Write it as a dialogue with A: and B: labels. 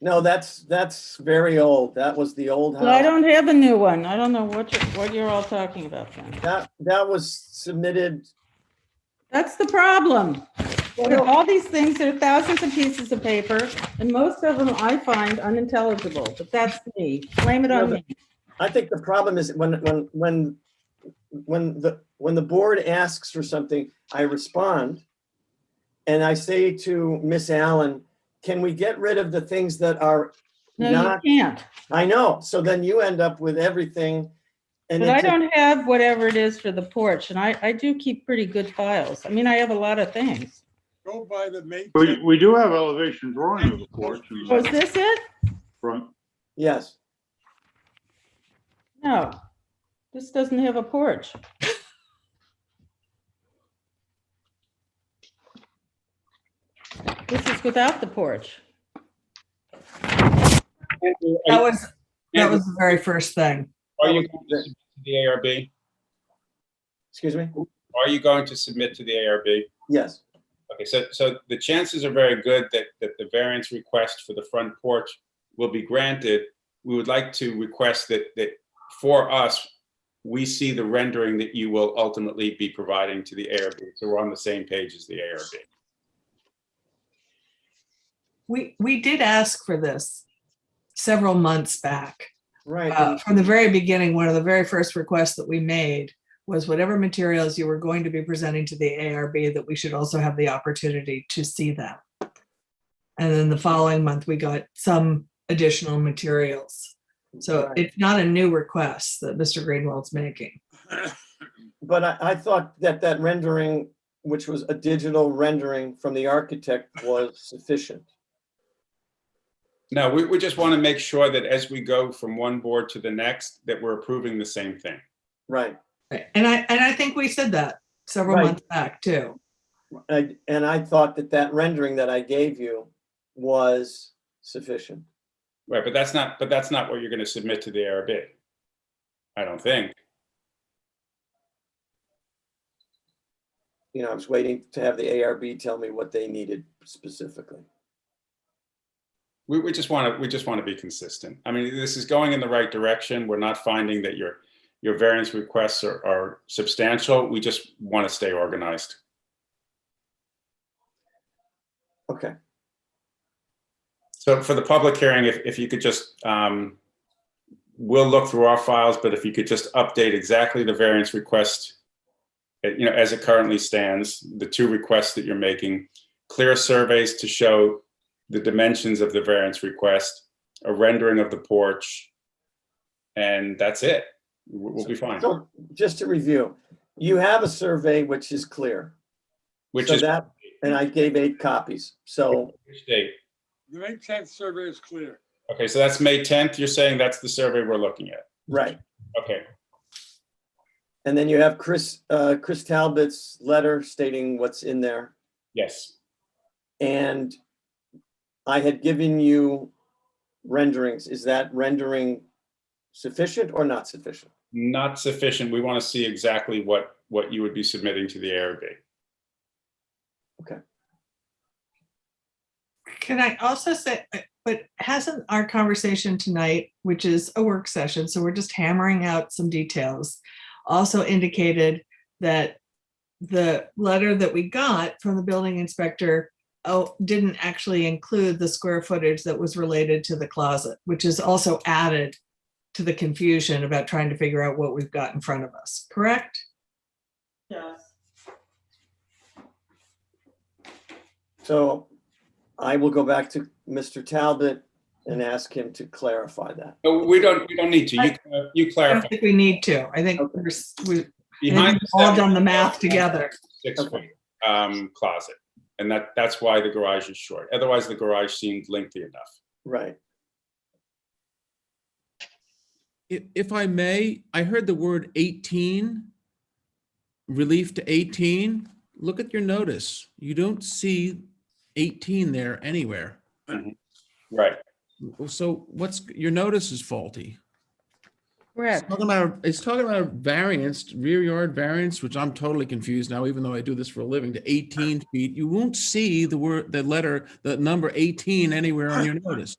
A: No, that's, that's very old. That was the old
B: Well, I
A: house.
B: don't have a new one. I don't know what, you're- what you're all talking about then.
A: That, that was submitted,
B: That's the problem. There are
A: Well-
B: All these things, there are thousands of pieces of paper, and most of them I find unintelligible, but that's me. Blame it on me.
A: I think the problem is when, when, when, when the, when the board asks for something, I respond. And I say to Miss Allen, can we get rid of the things that are
B: No,
A: not,
B: you can't.
A: I know, so then you end up with everything. And
B: But I
A: it's, a-
B: don't have whatever it is for the porch, and I, I do keep pretty good files. I mean, I have a lot of things.
C: Go by the May.
D: We,
C: 10th.
D: we do have elevation drawing of the porch in
B: Was
D: the
B: Oh, this it?
D: front.
A: yes,
B: No. This doesn't have a porch. This is without the porch.
E: That
F: Andrew,
E: was, that was the very first thing.
F: Are you going to submit to the ARB?
A: excuse me,
F: Are you going to submit to the ARB?
A: yes.
F: Okay, so, so the chances are very good that, that the variance request for the front porch will be granted. We would like to request that, that for us, we see the rendering that you will ultimately be providing to the ARB. So we're on the same page as the ARB.
E: We, we did ask for this several months back.
A: Right,
E: Uh,
A: and-
E: From the very beginning, one of the very first requests that we made was whatever materials you were going to be presenting to the ARB, that we should also have the opportunity to see them. And then the following month, we got some additional materials. So
A: Right.
E: it's not a new request that Mr. Greenwald's making.
A: But I, I thought that that rendering, which was a digital rendering from the architect, was sufficient.
F: No, we, we just want to make sure that as we go from one board to the next, that we're approving the same thing.
A: Right.
E: And I, and I think we said that several
A: Right.
E: months back too.
A: And, and I thought that that rendering that I gave you was sufficient.
F: Right, but that's not, but that's not what you're going to submit to the ARB. I don't think.
A: You know, I was waiting to have the ARB tell me what they needed specifically.
F: We, we just want to, we just want to be consistent. I mean, this is going in the right direction. We're not finding that your, your variance requests are, are substantial. We just want to stay organized.
A: Okay,
F: So for the public hearing, if, if you could just, um, we'll look through our files, but if you could just update exactly the variance request, uh, you know, as it currently stands, the two requests that you're making, clear surveys to show the dimensions of the variance request, a rendering of the porch, and that's it. We'll we'll be fine,
A: so just to review, you have a survey which is clear.
F: which
A: So
F: is
A: that- And I gave eight copies, so,
F: which date?
C: The May 10th survey is clear.
F: Okay, so that's May 10th. You're saying that's the survey we're looking at.
A: right.
F: Okay,
A: And then you have Chris, uh, Chris Talbot's letter stating what's in there.
F: yes,
A: And I had given you renderings. Is that rendering sufficient or not sufficient?
F: not sufficient. We want to see exactly what, what you would be submitting to the ARB.
E: Can I also say, uh, but hasn't our conversation tonight, which is a work session, so we're just hammering out some details, also indicated that the letter that we got from the building inspector oh, didn't actually include the square footage that was related to the closet, which is also added to the confusion about trying to figure out what we've got in front of us, correct?
B: Yes.
A: So I will go back to Mr. Talbot and ask him to clarify that.
F: No, Uh, we don't, we don't need to. You, uh, you
E: I don't
F: clarify.
E: think we need to. I think
A: Okay.
E: we're, s- we- I
F: Behind
E: think we've all
F: seven-
E: done the math together.
F: Six foot, um, closet. And that, that's why the garage is short. Otherwise, the garage seemed lengthy enough.
A: Right.
G: If, if I may, I heard the word 18, relief to 18. Look at your notice. You don't see 18 there anywhere.
F: Right.
G: So what's, your notice is faulty. It's
B: Correct.
G: talking about, it's talking about variance, rear yard variance, which I'm totally confused now, even though I do this for a living, to 18 feet. You won't see the word, the letter, the number 18 anywhere on your notice.